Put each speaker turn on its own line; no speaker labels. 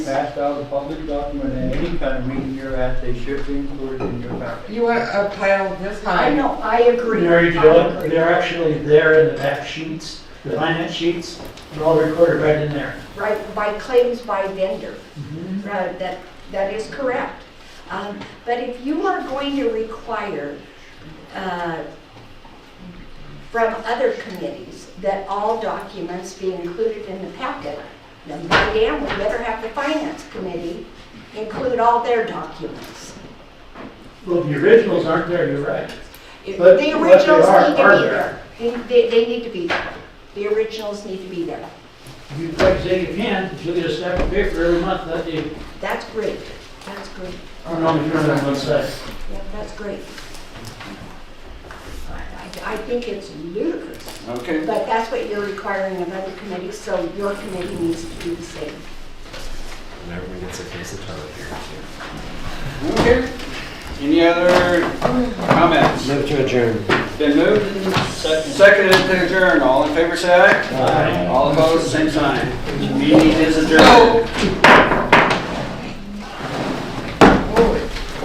passed out a public document at any kind of meeting you're at, they should be included in your packet.
You want a pile this
I
high?
know, I agree.
Mary Jo,
I agree.
they're actually there in the back sheets, the finance sheets, they're all recorded right in there.
Right, by claims by vendor.
Mm-hmm.
Right, that, that is correct. Um, But if you are going to require uh, from other committees that all documents be included in the packet, then by damn, we better have the finance committee include all their documents.
Well, the originals aren't there, you're right.
The
But what they
originals
are,
need to
are
be there.
there.
They, they- they need to be there. The originals need to be there.
You, like I say, you can, you'll get a stack of paper every month, that you,
That's great. That's great.
I don't know if you're on one side.
Yeah, that's great. I- I, I think it's ludicrous.
Okay.
But that's what you're requiring of other committees, so your committee needs to do the same.
And everyone gets a case of toilet paper too.
Okay. Any other comments?
Move to adjourn.
Been moved and seconded to adjourn. All in favor, say aye. All opposed, same sign. Meeting is adjourned.